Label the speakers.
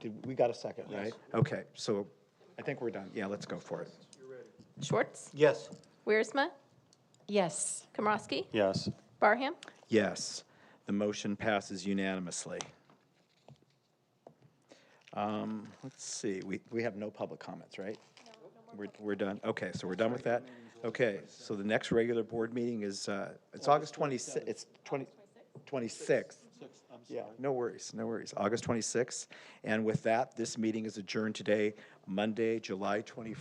Speaker 1: Did- We got a second, right? Okay, so I think we're done. Yeah, let's go for it.
Speaker 2: Schwartz,
Speaker 1: Yes.
Speaker 2: Wiersma,
Speaker 3: Yes.
Speaker 2: Komrosky,
Speaker 4: Yes.
Speaker 2: Barham,
Speaker 1: Yes, the motion passes unanimously. Um, Let's see, we, we have no public comments, right? We're, we're done, okay, so we're done with that? Okay, so the next regular board meeting is, uh, it's August 26th, it's 20, 26th. Yeah, no worries, no worries, August 26th. And with that, this meeting is adjourned today, Monday, July 24th.